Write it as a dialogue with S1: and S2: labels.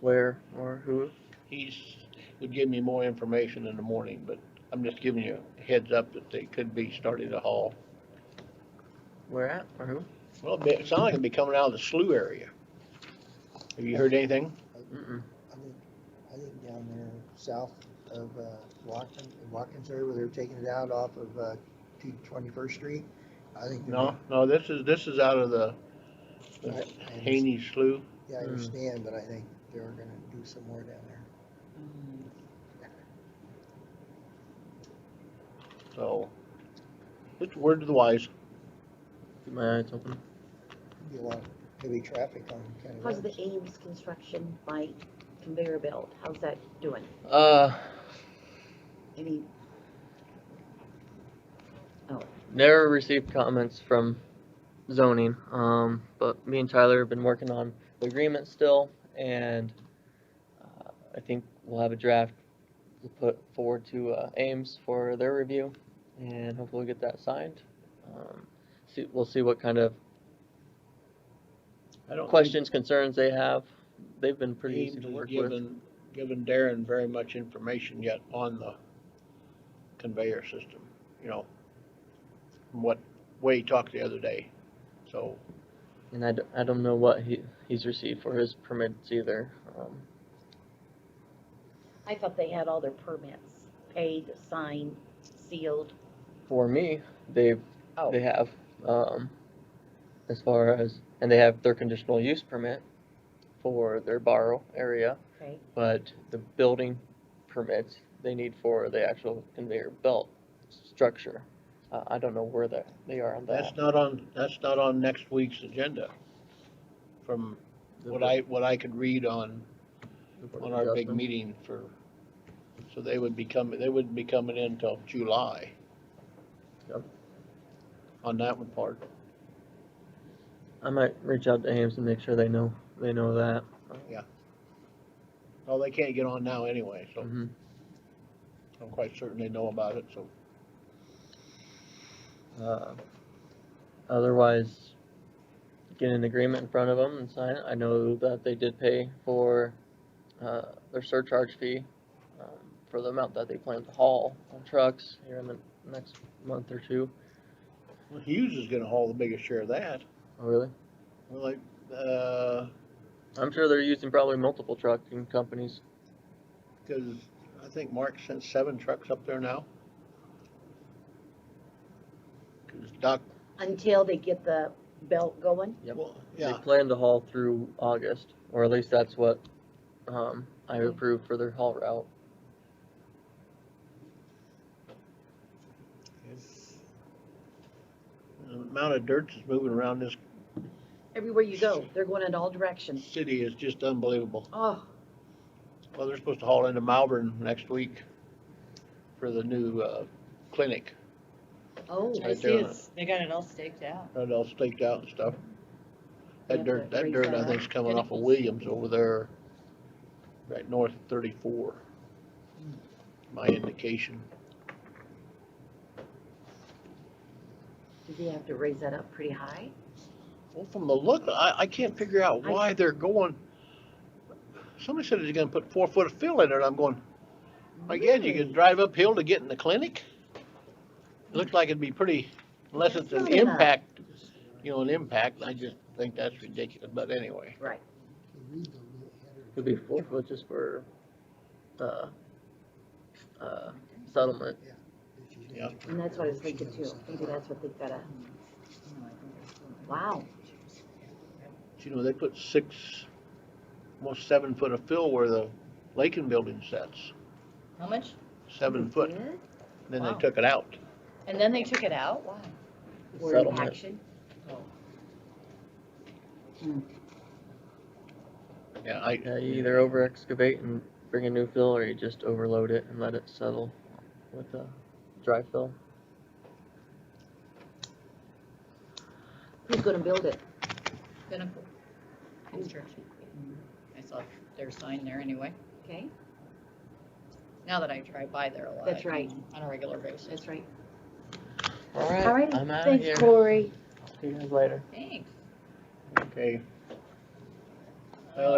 S1: where, or who?
S2: He's, would give me more information in the morning, but I'm just giving you a heads up that they could be starting to haul.
S1: Where at, or who?
S2: Well, it sounds like it'd be coming out of the slough area. Have you heard anything?
S1: Mm-mm.
S3: I think, I think down there south of, uh, Watkins, Watkins area where they're taking it out off of, uh, two twenty-first street. I think. they're-
S2: No, no, this is, this is out of the the
S3: I- I
S2: Haney slough.
S3: Yeah, I
S1: Mm.
S3: understand, but I think they're gonna do some more down there.
S2: So, it's word to the wise.
S1: Keep my eyes open.
S3: Could Be a lot of heavy traffic on County
S4: How's the
S3: roads.
S4: Ames construction by conveyor belt? How's that doing?
S1: Uh,
S4: Any,
S1: never received comments from zoning, um, but me and Tyler have been working on the agreement still, and uh, I think we'll have a draft to put forward to uh, Ames for their review, and hopefully we'll get that signed. Um, see, we'll see what kind of
S2: I don't think
S1: questions, concerns they have. They've been pretty easy
S2: Ames
S1: to
S2: has
S1: work with.
S2: given, given Darren very much information yet on the conveyor system, you know, from what way he talked the other day. So,
S1: And I, d- I don't know what he, he's received for his permits either. Um,
S4: I thought they had all their permits paid, signed, sealed.
S1: for me, they've
S4: Oh,
S1: they have um, as far as and they have their conditional use permit for their borrow area,
S4: okay.
S1: but the building permits they need for the actual conveyor belt structure. Uh, I don't know where that they are on that.
S2: that's not on, that's not on next week's agenda. From what I, what I could read on on our big meeting for, so they would be coming, they wouldn't be coming in till July.
S1: Yep.
S2: On that one part,
S1: I might reach out to Ames and make sure they know they know that.
S2: oh, they can't get on now anyway, so
S1: Mhm.
S2: I'm quite certain they know about it, so.
S1: Uh, otherwise, get an agreement in front of them and sign it. I know that they did pay for, uh, their surcharge fee, um, for the amount that they plan to haul on trucks here in the next month or two.
S2: Well, Hughes is gonna haul the biggest share of that,
S1: Oh, really?
S2: Well, like, uh,
S1: I'm sure they're using probably multiple trucking companies.
S2: cause I think Mark sent seven trucks up there now. Cause Doc,
S4: Until they get the belt going?
S1: Yep.
S2: well,
S1: They
S2: yeah,
S1: plan to haul through August, or at least that's what, um, I approved for their haul route.
S2: the amount of dirt that's moving around this
S4: Everywhere you go, they're going in all directions.
S2: city is just unbelievable.
S4: Oh,
S2: Well, they're supposed to haul into Malvern next week for the new, uh, clinic,
S4: oh.
S2: Right
S5: I see
S2: there.
S5: it's, they got it all staked out.
S2: got it all staked out and stuff.
S4: Yeah,
S2: That dirt,
S4: that
S2: that
S4: raised
S2: dirt, I
S4: that
S2: think's coming off of
S5: pinnacles.
S2: Williams over there, right north of thirty-four. My indication,
S4: Do they have to raise that up pretty high?
S2: well, from the look, I, I can't figure out
S4: I-
S2: why they're going. Somebody said they're gonna put four foot of fill in it, and I'm going, my God, you can drive uphill to get in the clinic? It Looks like it'd be pretty, unless
S4: That's
S2: it's an
S4: not enough.
S2: impact, you know, an impact, I just think that's ridiculous, but anyway.
S4: Right.
S3: You read the little header.
S1: Could be four foot just for, uh, uh, settlement.
S3: that she's gonna
S2: Yeah.
S3: have to
S4: And that's what I was
S3: prepare. She
S4: thinking too.
S3: knows something.
S4: Maybe that's what they gotta, wow.
S2: You know, they put six, almost seven foot of fill where the Lakin building sets,
S5: How much?
S2: seven foot,
S5: They did?
S2: then they
S5: Wow.
S2: took it out.
S5: And then they took it out? Wow.
S4: We're in
S1: Settlement.
S4: action.
S2: Yeah, I,
S1: Yeah, you either over excavate and bring a new fill, or you just overload it and let it settle with a dry fill.
S4: Who's gonna build it?
S5: Pinnacle Construction. I saw their sign there anyway.
S4: Okay,
S5: Now that I drive by there a lot.
S4: That's right.
S5: On a regular basis.
S4: that's right.
S1: All
S4: All right,
S1: I'm out of here.
S4: thanks Corey.
S1: See you guys later.
S5: Thanks.
S2: okay,